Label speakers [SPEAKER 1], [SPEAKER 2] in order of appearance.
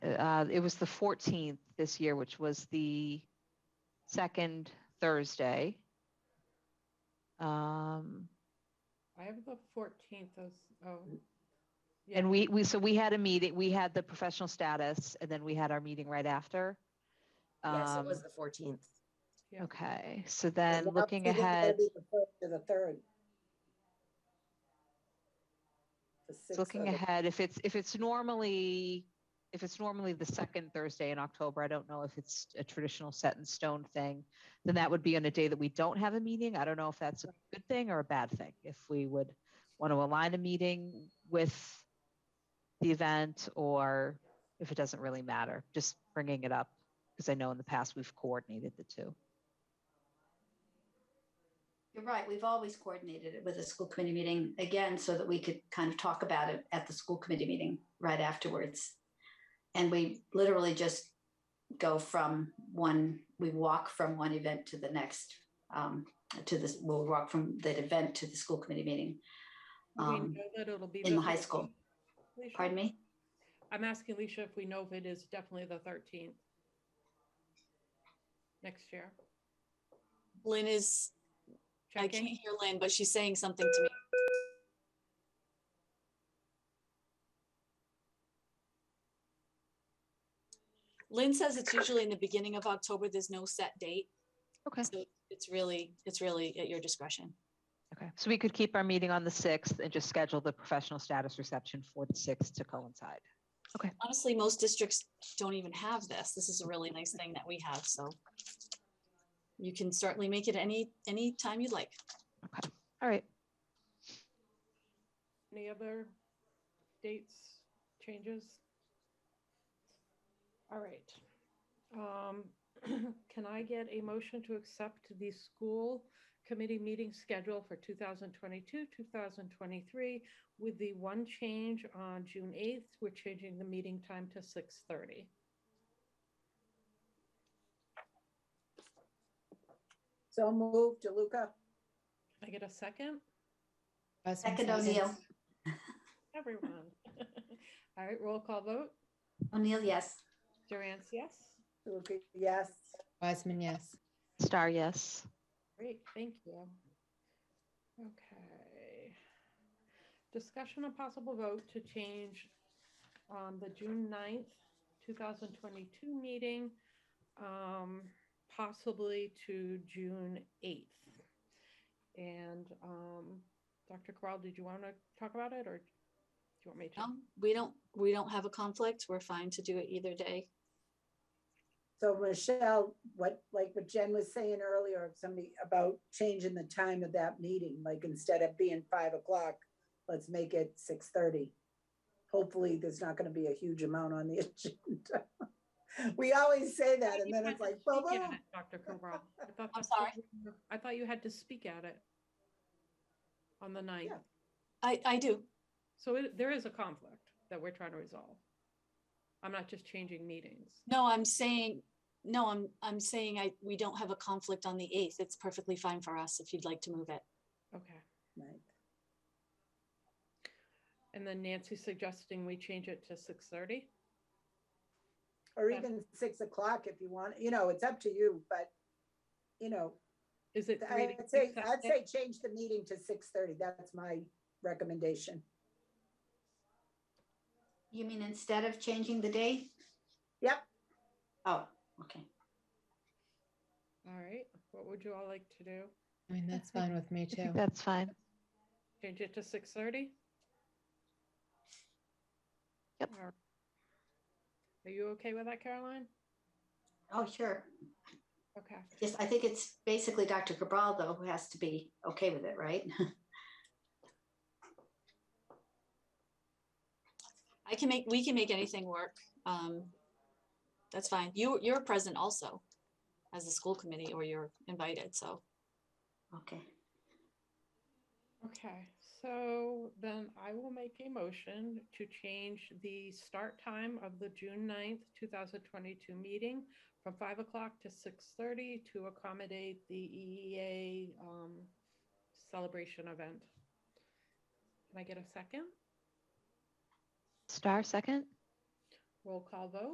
[SPEAKER 1] Uh, it was the 14th this year, which was the second Thursday. Um,
[SPEAKER 2] I have the fourteenth, those, oh. yeah.
[SPEAKER 1] And we, we, so we had a meeting, we had the professional status and then we had our meeting right after.
[SPEAKER 3] Yes, it was
[SPEAKER 1] Um,
[SPEAKER 3] the fourteenth.
[SPEAKER 2] Yeah.
[SPEAKER 1] Okay, so then looking ahead,
[SPEAKER 4] To the third. The
[SPEAKER 1] it's
[SPEAKER 4] sixth
[SPEAKER 1] looking
[SPEAKER 4] or the-
[SPEAKER 1] ahead, if it's, if it's normally, if it's normally the second Thursday in October, I don't know if it's a traditional set in stone thing, then that would be on a day that we don't have a meeting. I don't know if that's a good thing or a bad thing. If we would want to align a meeting with the event or if it doesn't really matter, just bringing it up. Because I know in the past we've coordinated the two.
[SPEAKER 5] You're right. We've always coordinated it with a school committee meeting again, so that we could kind of talk about it at the school committee meeting right afterwards. And we literally just go from one, we walk from one event to the next, um, to this, we'll walk from that event to the school committee meeting.
[SPEAKER 2] Do we
[SPEAKER 5] um,
[SPEAKER 2] know that it'll be
[SPEAKER 5] in the high school.
[SPEAKER 2] 13th, Alicia?
[SPEAKER 5] Pardon me?
[SPEAKER 2] I'm asking Alicia if we know if it is definitely the thirteenth. Next year,
[SPEAKER 6] Lynn is, I can't
[SPEAKER 2] checking,
[SPEAKER 6] hear Lynn, but she's saying something to me. Lynn says it's usually in the beginning of October. There's no set date.
[SPEAKER 1] Okay.
[SPEAKER 6] So it's really, it's really at your discretion.
[SPEAKER 1] Okay, so we could keep our meeting on the 6th and just schedule the professional status reception for the 6th to coincide.
[SPEAKER 6] Honestly, most districts don't even have this. This is a really nice thing that we have, so. You can certainly make it any, any time you'd like.
[SPEAKER 1] All right,
[SPEAKER 2] any other dates, changes? All right. Um, Can I get a motion to accept the school committee meeting schedule for 2022, 2023? With the one change on June 8th, we're changing the meeting time to 6:30.
[SPEAKER 4] So move, DeLuca.
[SPEAKER 2] I get a second?
[SPEAKER 5] Second O'Neill.
[SPEAKER 2] Everyone. All right, roll call vote.
[SPEAKER 5] O'Neill, yes.
[SPEAKER 2] Durant, yes?
[SPEAKER 4] DeLuca, yes.
[SPEAKER 7] Wiseman, yes.
[SPEAKER 1] star yes.
[SPEAKER 2] Great, thank you. Okay. Discussion of possible vote to change um, the June 9th, two thousand twenty-two meeting, um, possibly to June eighth. And, um, Dr. Corral, did you want to talk about it or do you want me to?
[SPEAKER 6] No, we don't, we don't have a conflict. We're fine to do it either day.
[SPEAKER 4] So Michelle, what, like what Jen was saying earlier, if somebody about changing the time of that meeting, like instead of being five o'clock, let's make it six thirty. Hopefully, there's not gonna be a huge amount on the agenda. We always say that and then
[SPEAKER 2] You had
[SPEAKER 4] it's
[SPEAKER 2] to
[SPEAKER 4] like, boom,
[SPEAKER 2] speak at
[SPEAKER 4] boom.
[SPEAKER 2] it, Dr. Corral. I thought
[SPEAKER 6] I'm
[SPEAKER 2] that's what
[SPEAKER 6] sorry?
[SPEAKER 2] you- I thought you had to speak at it on the ninth.
[SPEAKER 4] Yeah.
[SPEAKER 6] I, I do.
[SPEAKER 2] So it, there is a conflict that we're trying to resolve. I'm not just changing meetings.
[SPEAKER 6] No, I'm saying, no, I'm, I'm saying I, we don't have a conflict on the eighth. It's perfectly fine for us if you'd like to move it.
[SPEAKER 2] Okay.
[SPEAKER 4] Right.
[SPEAKER 2] And then Nancy suggesting we change it to six thirty.
[SPEAKER 4] Or even six o'clock if you want, you know, it's up to you, but, you know,
[SPEAKER 2] Is it? three to
[SPEAKER 4] I'd say,
[SPEAKER 2] six that
[SPEAKER 4] I'd
[SPEAKER 2] day?
[SPEAKER 4] say change the meeting to six thirty. That's my recommendation.
[SPEAKER 5] You mean instead of changing the date?
[SPEAKER 4] Yep.
[SPEAKER 5] Oh, okay.
[SPEAKER 2] All right. What would you all like to do?
[SPEAKER 7] I mean, that's fine with me
[SPEAKER 1] I think
[SPEAKER 7] too.
[SPEAKER 1] that's fine.
[SPEAKER 2] Change it to six thirty?
[SPEAKER 1] Yep.
[SPEAKER 2] Are you okay with that, Caroline?
[SPEAKER 5] Oh, sure.
[SPEAKER 2] Okay.
[SPEAKER 5] Yes, I think it's basically Dr. Cabral though, who has to be okay with it, right?
[SPEAKER 6] I can make, we can make anything work. Um, that's fine. You, you're present also as the school committee or you're invited, so.
[SPEAKER 5] Okay.
[SPEAKER 2] Okay, so then I will make a motion to change the start time of the June 9th, two thousand twenty-two meeting from five o'clock to six thirty to accommodate the EEA um, celebration event. Can I get a second?
[SPEAKER 1] Star second?
[SPEAKER 2] Roll call vote?